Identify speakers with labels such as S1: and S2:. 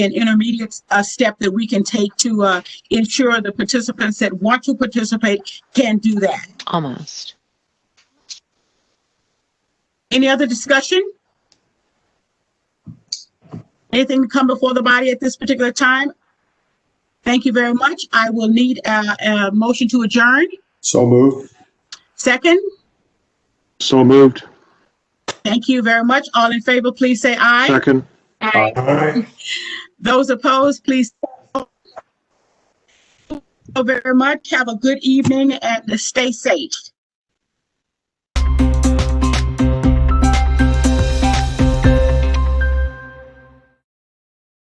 S1: an intermediate uh, step that we can take to uh, ensure the participants that want to participate can do that.
S2: Almost.
S1: Any other discussion? Anything to come before the body at this particular time? Thank you very much. I will need a, a motion to adjourn.
S3: So moved.
S1: Second,
S4: So moved.
S1: thank you very much. All in favor, please say aye.
S4: Second.
S3: Aye.
S1: Those opposed, please. Thank you very much. Have a good evening and stay safe.